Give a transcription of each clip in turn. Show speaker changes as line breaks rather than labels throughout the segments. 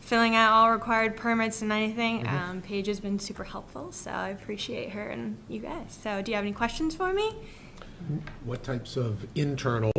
filling out all required permits and anything. Um, Paige has been super helpful, so I appreciate her and you guys. So do you have any questions for me?
What types of internal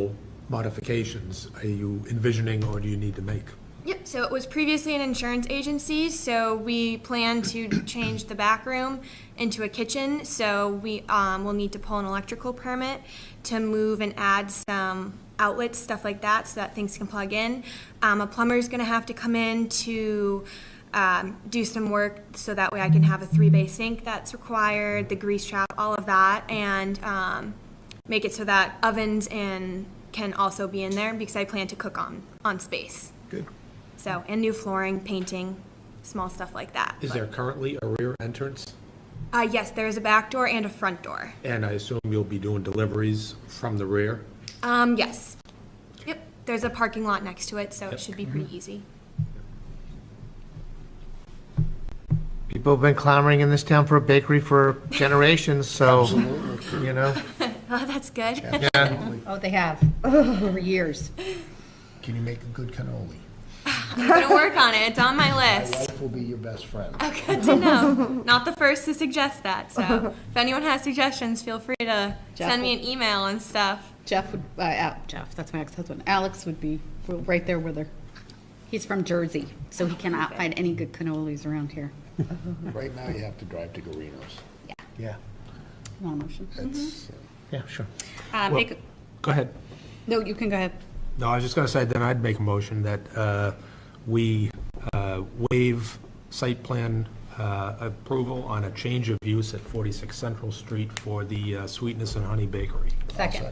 modifications are you envisioning or do you need to make?
Yep, so it was previously an insurance agency, so we plan to change the back room into a kitchen. So we um, will need to pull an electrical permit to move and add some outlets, stuff like that, so that things can plug in. Um, a plumber's gonna have to come in to um, do some work so that way I can have a three bay sink that's required, the grease trap, all of that, and um, make it so that ovens and can also be in there because I plan to cook on on space.
Good.
So, and new flooring, painting, small stuff like that.
Is there currently a rear entrance?
Uh, yes, there is a back door and a front door.
And I assume you'll be doing deliveries from the rear?
Um, yes. Yep, there's a parking lot next to it, so it
Yep.
should be
Mm-hmm.
pretty easy.
People have been clamoring in this town for a bakery for generations, so, you know.
Oh, that's good.
Oh, they have, for years.
Can you make a good cannoli?
I'm gonna work on it. It's on my list. Oh,
Life will be your best friend.
Good to know. Not the first to suggest that. So, if anyone has suggestions, feel free to send me an email and stuff.
Jeff would, uh, Al- Jeff, that's my ex-husband. Alex would be right there with her. He's from Jersey, so he cannot find any good cannolis around here.
Right now, you have to drive to Guarino's.
Yeah.
Come on, motion.
That's,
Mm-hmm.
uh,
Yeah, sure.
Uh, make a-
Go ahead.
No, you can go ahead.
No, I was just going to say, then I'd make a motion that uh, we uh, waive site plan uh, approval on a change of use at 46 Central Street for the uh, Sweetness and Honey Bakery.
Second.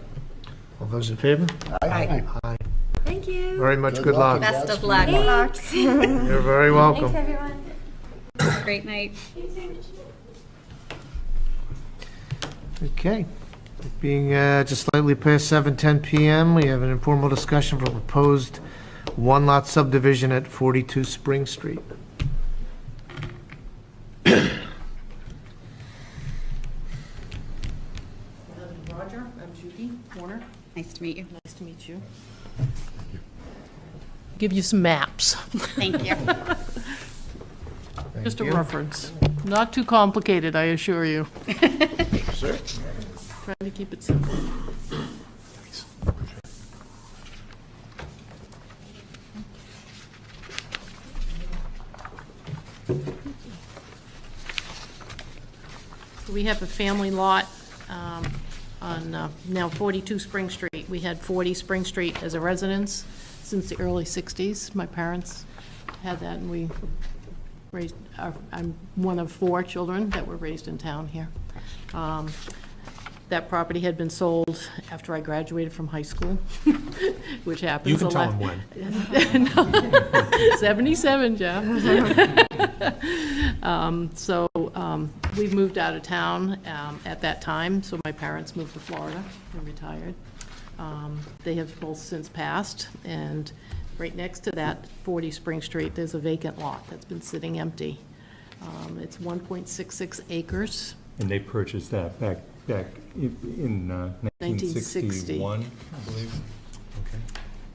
All those in favor?
Aye.
Aye.
Thank you.
Very much
Good
good
luck.
luck.
Best of luck.
Thanks. Thanks,
You're very welcome.
everyone.
Great night.
Okay. It Being uh, just slightly past 7:10 PM, we have an informal discussion for proposed one-lot subdivision at 42 Spring Street.
Roger, I'm Judy Warner.
Nice to meet you.
Nice to meet you.
give you some maps,
Thank you.
just a reference. Not too complicated, I assure you. Trying to keep it simple. We have a family lot um, on uh, now 42 Spring Street. We had 40 Spring Street as a residence since the early 60s. My parents had that, and we raised, uh, I'm one of four children that were raised in town here. Um, That property had been sold after I graduated from high school, which happens.
You can
a
tell
lot.
them when.
77, Jeff. Um, So um, we moved out of town um, at that time, so my parents moved to Florida and retired. Um, They have both since passed, and right next to that, 40 Spring Street, there's a vacant lot that's been sitting empty. Um, It's 1.66 acres.
And they purchased that back, back i- in uh,
1960.
1961, I believe.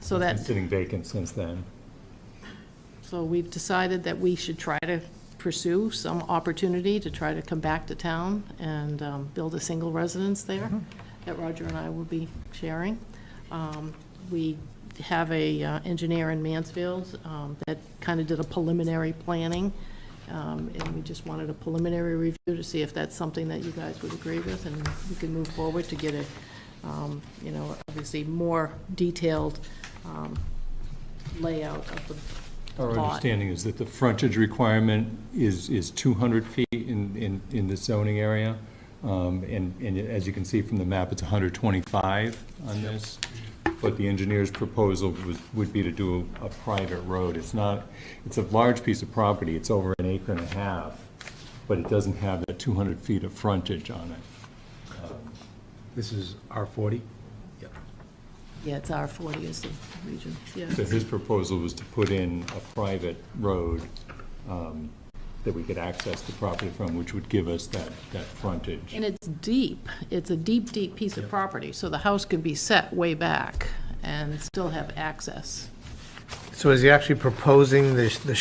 So
Been
that's,
sitting vacant since then.
so we've decided that we should try to pursue some opportunity to try to come back to town and um, build a single residence there that Roger and I will be sharing. Um, We have a uh, engineer in Mansfield um, that kind of did a preliminary planning, um, and we just wanted a preliminary review to see if that's something that you guys would agree with, and we can move forward to get a, um, you know, obviously more detailed um, layout of the
Our
lot.
understanding is that the frontage requirement is, is 200 feet in, in, in the zoning area. Um, And, and as you can see from the map, it's 125 on this. But the engineer's proposal was, would be to do a private road. It's not, it's a large piece of property. It's over an acre and a half, but it doesn't have the 200 feet of frontage on it.
This is R40?
Yeah, it's R forty is the region, yeah.
So his proposal was to put in a private road um, that we could access the property from, which would give us that, that frontage.
And it's deep, it's a deep, deep piece of property, so the house could be set way back and still have access.
So is he actually proposing the the